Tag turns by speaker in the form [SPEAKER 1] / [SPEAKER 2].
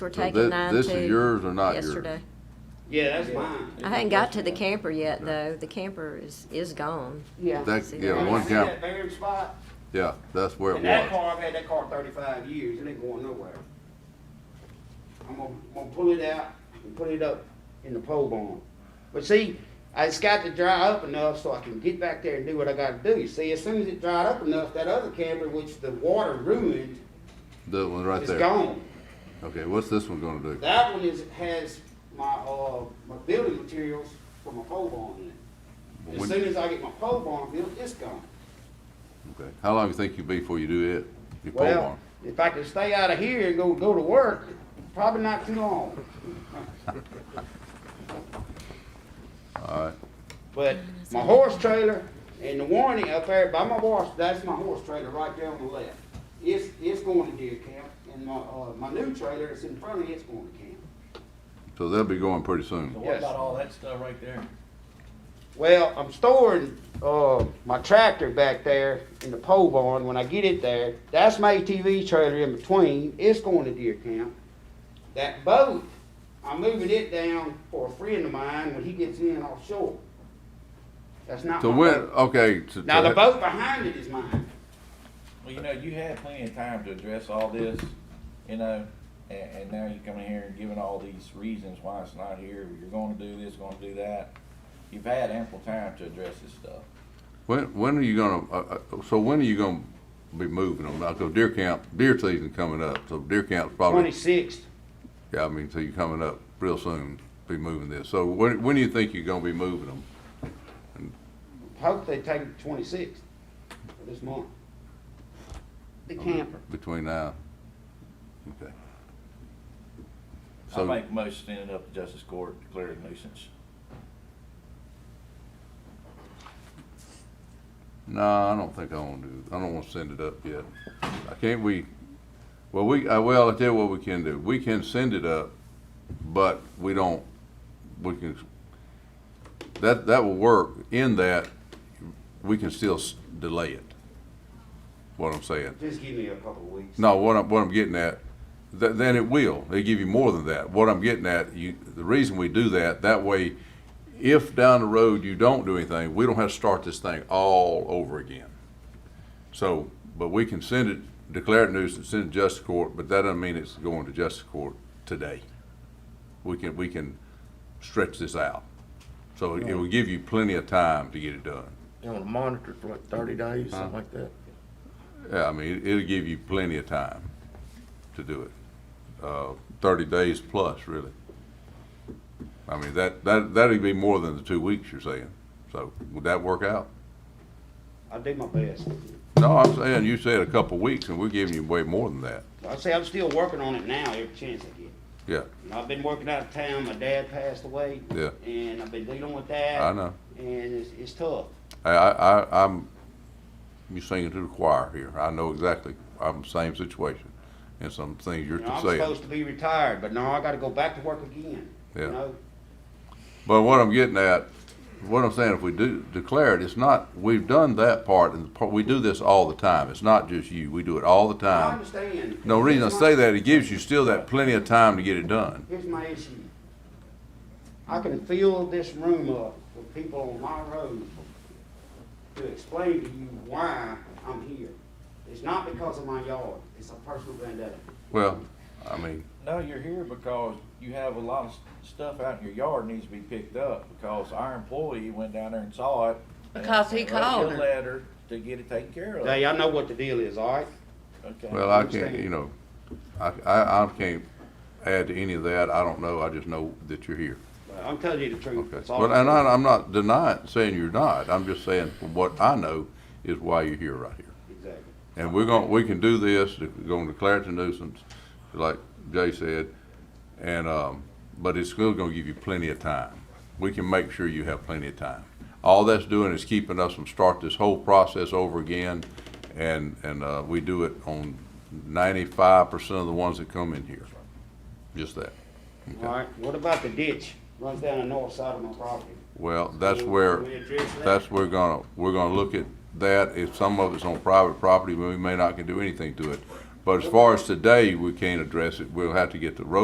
[SPEAKER 1] We're
[SPEAKER 2] So
[SPEAKER 1] taking
[SPEAKER 2] thi-
[SPEAKER 1] nine
[SPEAKER 2] This is
[SPEAKER 1] two
[SPEAKER 2] yours or not yours?
[SPEAKER 1] yesterday.
[SPEAKER 3] Yeah, that's mine.
[SPEAKER 1] I hadn't got to the camper yet, though. The camper is, is gone.
[SPEAKER 4] Yeah,
[SPEAKER 2] That,
[SPEAKER 1] See
[SPEAKER 2] yeah,
[SPEAKER 1] that?
[SPEAKER 2] one
[SPEAKER 3] See
[SPEAKER 2] camp,
[SPEAKER 3] that buried spot?
[SPEAKER 2] yeah, that's where it
[SPEAKER 3] And that
[SPEAKER 2] was.
[SPEAKER 3] car, I've had that car thirty-five years, it ain't going nowhere. I'm gonna, gonna pull it out and put it up in the pole barn. But see, it's got to dry up enough so I can get back there and do what I gotta do. See, as soon as it dried up enough, that other camper, which the water ruined,
[SPEAKER 2] That one right
[SPEAKER 3] is
[SPEAKER 2] there.
[SPEAKER 3] gone.
[SPEAKER 2] Okay, what's this one gonna do?
[SPEAKER 3] That one is, has my, uh, my building materials for my pole barn in it. As
[SPEAKER 2] When-
[SPEAKER 3] soon as I get my pole barn built, it's gone.
[SPEAKER 2] Okay, How long you think you'll be before you do it? Your pole
[SPEAKER 3] Well,
[SPEAKER 2] barn?
[SPEAKER 3] if I could stay out of here and go, go to work, probably not too long.
[SPEAKER 2] All right,
[SPEAKER 3] But my horse trailer and the warranty up there by my horse, that's my horse trailer right there on the left. It's, it's going to deer camp and my, uh, my new trailer that's in front of it's going to camp.
[SPEAKER 2] so they'll be going pretty soon.
[SPEAKER 5] So
[SPEAKER 3] Yes.
[SPEAKER 5] what about all that stuff right there?
[SPEAKER 3] Well, I'm storing, uh, my tractor back there in the pole barn. When I get it there, that's my ATV trailer in between. It's going to deer camp. That boat, I'm moving it down for a friend of mine when he gets in offshore. That's not
[SPEAKER 2] So
[SPEAKER 3] my
[SPEAKER 2] when,
[SPEAKER 3] boat.
[SPEAKER 2] okay. to-
[SPEAKER 3] Now, the
[SPEAKER 2] to-
[SPEAKER 3] boat behind it is mine.
[SPEAKER 5] Well, you know, you had plenty of time to address all this, you know, and, and now you're coming here and giving all these reasons why it's not here, you're gonna do this, gonna do that. You've had ample time to address this stuff.
[SPEAKER 2] When, when are you gonna, uh, uh, so when are you gonna be moving them? Now, 'cause deer camp, deer season coming up, so deer camp's probably,
[SPEAKER 3] Twenty-sixth.
[SPEAKER 2] yeah, I mean, so you're coming up real soon, be moving this. So when, when do you think you're gonna be moving them?
[SPEAKER 3] Hope they take it twenty-sixth of this month.
[SPEAKER 4] the camper.
[SPEAKER 2] Between now? Okay.
[SPEAKER 5] I
[SPEAKER 2] So-
[SPEAKER 5] make most stand up to justice court, declare it a nuisance.
[SPEAKER 2] No, I don't think I want to. do I don't want to send it up yet. I can't. We, well, we. I, well, I tell you what we can do. We can send it up, but we don't. We can. That that will work. In that, we can still s- delay it. What I'm saying.
[SPEAKER 3] Just give me a couple of weeks.
[SPEAKER 2] No, what I'm, what I'm getting at, th- then it will. They give you more than that. What I'm getting at, you, the reason we do that, that way, if down the road you don't do anything, we don't have to start this thing all over again. So, but we can send it, declare it nuisance, send it to justice court, but that doesn't mean it's going to justice court today. We can, we can stretch this out. So it will give you plenty of time to get it done.
[SPEAKER 6] You want to monitor for like thirty days, something like that?
[SPEAKER 2] Yeah, I mean, it- it'll give you plenty of time to do it. Uh, Thirty days plus, really. I mean, that, that, that'd be more than the two weeks you're saying. So would that work out?
[SPEAKER 3] I'll do my best.
[SPEAKER 2] No, I'm saying, you said a couple of weeks and we're giving you way more than that.
[SPEAKER 3] I say I'm still working on it now every chance I get.
[SPEAKER 2] Yeah,
[SPEAKER 3] And I've been working out of town. My dad passed away.
[SPEAKER 2] Yeah.
[SPEAKER 3] And I've been dealing with that.
[SPEAKER 2] I know.
[SPEAKER 3] And it's, it's tough.
[SPEAKER 2] I, I, I- I'm, you singing to the choir here. I know exactly. I'm the same situation and some things you're
[SPEAKER 3] You know, I'm
[SPEAKER 2] saying.
[SPEAKER 3] supposed to be retired, but now I got to go back to work again.
[SPEAKER 2] Yeah.
[SPEAKER 3] You know,
[SPEAKER 2] But what I'm getting at, what I'm saying, if we do declare it, it's not, we've done that part, and the part- we do this all the time. It's not just you, we do it all the
[SPEAKER 3] I
[SPEAKER 2] time.
[SPEAKER 3] understand.
[SPEAKER 2] Uh, No reason I
[SPEAKER 3] Here's my-
[SPEAKER 2] say that, it gives you still that plenty of time to get it done.
[SPEAKER 3] Here's my issue. I can fill this room up with people on my road to explain to you why I'm here. It's not because of my yard. It's a personal vendetta.
[SPEAKER 2] Well, I mean,
[SPEAKER 5] No, you're here because you have a lot of s- stuff out in your yard needs to be picked up, because our employee went down there and saw it. and-
[SPEAKER 4] Because he
[SPEAKER 5] and wrote you
[SPEAKER 4] called
[SPEAKER 5] a
[SPEAKER 4] her.
[SPEAKER 5] Letter to get it taken care of.
[SPEAKER 3] Now, y'all know what the deal is, all right?
[SPEAKER 5] Okay.
[SPEAKER 2] well, I can't, you know, I, I, I can't add to any of that. I don't know, I just know that you're here.
[SPEAKER 3] But I'm telling you the truth.
[SPEAKER 2] Okay.
[SPEAKER 3] That's all
[SPEAKER 2] Well, and
[SPEAKER 3] I'm doing.
[SPEAKER 2] I, I'm not denying, saying you're not. I'm just saying from what I know is why you're here right here.
[SPEAKER 3] Exactly.
[SPEAKER 2] And we're gonna, we can do this, we're gonna declare it a nuisance, like Jay said, and, um, but it's still gonna give you plenty of time. We can make sure you have plenty of time. All that's doing is keeping us from start this whole process over again, and, and, uh, we do it on ninety-five percent of the ones that come in here. Just that.
[SPEAKER 3] All right, what about the ditch? Runs down the north side of my property.
[SPEAKER 2] Well, that's
[SPEAKER 3] Can we-
[SPEAKER 2] where,
[SPEAKER 3] can we address that?
[SPEAKER 2] that's where gonna, we're gonna look at that, if some of it's on private property, we may not can do anything to it. But as far as today, we can't address it, we'll have to get the road